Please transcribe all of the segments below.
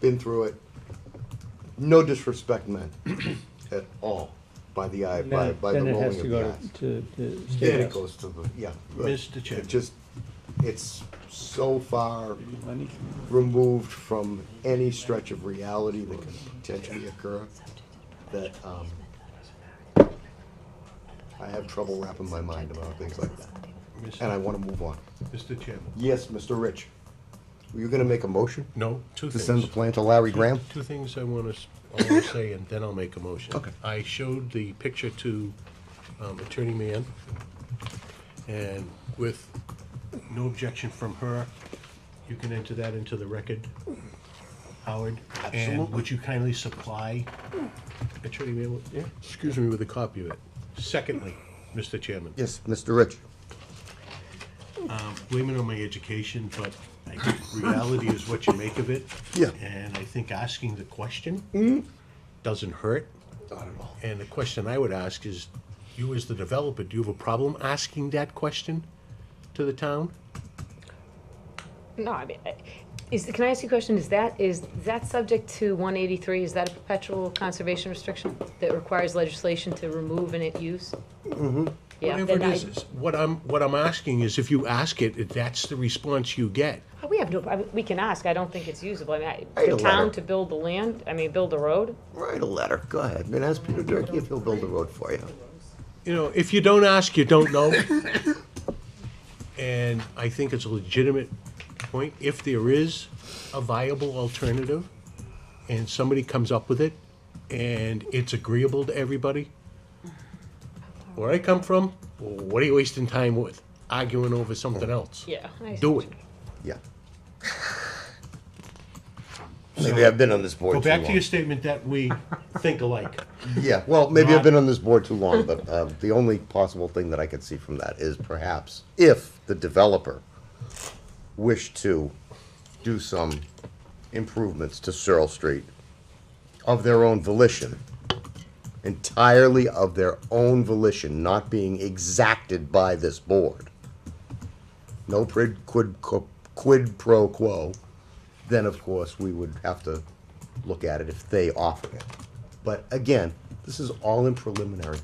been through it. No disrespect meant at all by the eye, And by, Then by the then it rolling has of to the go eyes. to, to Then state it house. goes to the, yeah. but Mr. Chairman. It just, it's so far Money. removed from any stretch of reality that can potentially occur that, um, I have trouble wrapping my mind about things like that, and I wanna move on. Mr. Chairman. Yes, Mr. Rich, were you gonna make a motion No, two to things. send the plan to Larry Graham? Two things I want to say, and then I'll make a motion. Okay. I showed the picture to um, Attorney Mann, and with no objection from her, you can enter that into the record, Howard. And Absolutely. would you kindly supply Attorney Mann, with- yeah, excuse me, with a copy of it? Secondly, Mr. Chairman. Yes, Mr. Rich. blaming on my education, but I think reality is what you make of it. Yeah. And I think asking the question doesn't hurt. Not at all. And the question I would ask is, you as the developer, do you have a problem asking that question to the town? No, I mean, I- is, can I ask you a question? Is that, is that subject to 183? Is that a perpetual conservation restriction that requires legislation to remove and it use? Mm-hmm. Yeah, Whatever then it I, is, is- what I'm, what I'm asking is if you ask it, if that's the response you get. Oh, we have no, I mean, we can ask, I don't think it's usable. I mean, I- Write a the town letter. to build the land, I mean, build the road? Write a letter, go ahead, and ask Peter Durkee if he'll build a road for you. You know, if you don't ask, you don't know. And I think it's a legitimate point. If there is a viable alternative and somebody comes up with it and it's agreeable to everybody, where I come from, what are you wasting time with? Arguing over something else? Yeah. I- Do it. Yeah. Maybe I've been on this board Go too back to long. your statement that we think alike. Yeah, well, maybe I've Not- been on this board too long, but uh, the only possible thing that I could see from that is perhaps if the developer wished to do some improvements to Searle Street of their own volition, entirely of their own volition, not being exacted by this board, no prid, quid, co- quid pro quo, then of course we would have to look at it if they offer it. But again, this is all in preliminary.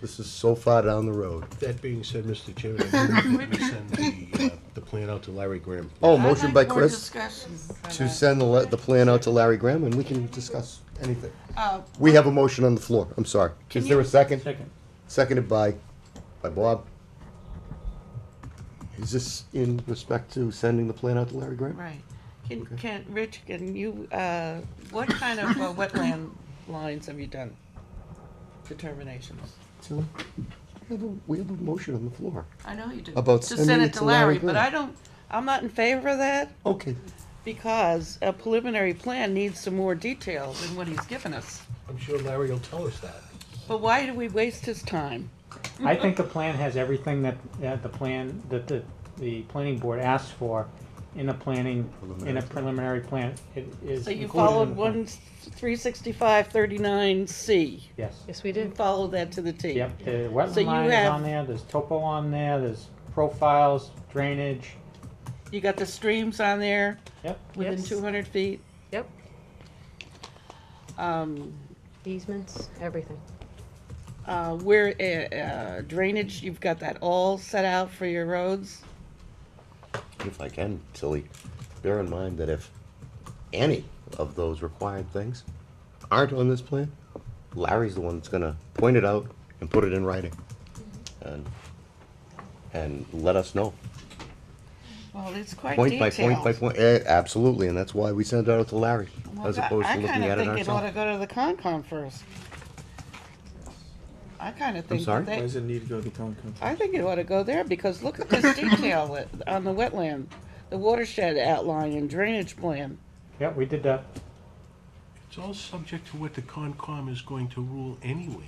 This is so far down the road. That being said, Mr. Chairman, I move that we send the, uh, the plan out to Larry Graham. Oh, I'd motion like by more Chris discussion. to send the, le- the plan out to Larry Graham and we can discuss anything. Uh, We have a motion on the floor, I'm sorry. Is there a second? Second. Seconded by, by Bob. Is this in respect to sending the plan out to Larry Graham? Right. Can, can, Rich, can you, uh, what kind of uh, wetland lines have you done? Determinations? So, we have a- We have a motion on the floor. I know you do. About To sending send it it to to Larry Larry, but Graham. I don't, I'm not in favor of that Okay, because a preliminary plan needs some more detail than what he's given us. I'm sure Larry will tell us that. But why do we waste his time? I think the plan has everything that, that the plan, that the, the planning board asks for in a planning, in a preliminary plan. It is So included in you the plan. followed one, three sixty-five thirty-nine C. Yes. Yes, we You did. followed that to the T. Yep, the So wetland you line is have- on there, there's topo on there, there's profiles, drainage. You got the streams on there Yep, within Yes. two hundred feet. Yep, Um, easements, everything. Uh, where, uh, uh, drainage, you've got that all set out for your roads? if I can, Tilly, bear in mind that if any of those required things aren't on this plan, Larry's the one that's gonna point it out and put it in writing. Mm-hmm. And, and let us know, Well, it's quite point by point by detailed. point, eh, absolutely, and that's why we send it out to Larry, Well, as I- opposed to looking at I it kinda think it ought to ourselves. go to the Concom first. I kinda think sorry? that Why they, does it need to go to the town council? I think it ought to go there, because look at this detail that- on the wetland, the watershed outline and drainage plan. yep, we did that. It's all subject to what the Concom is going to rule anyways.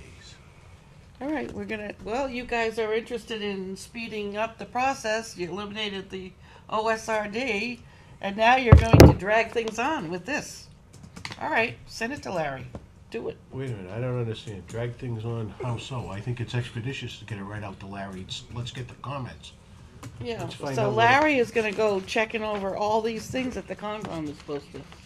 All right, we're gonna, well, you guys are interested in speeding up the process, you eliminated the OSRD, and now you're going to drag things on with this. All right, send it to Larry, do it. Wait a minute, I don't understand. Drag things on, how so? I think it's expeditious to get it right out to Larry. It's- Let's get the comments. Yeah, Let's find so out what- Larry is gonna go checking over all these things that the Concom is supposed to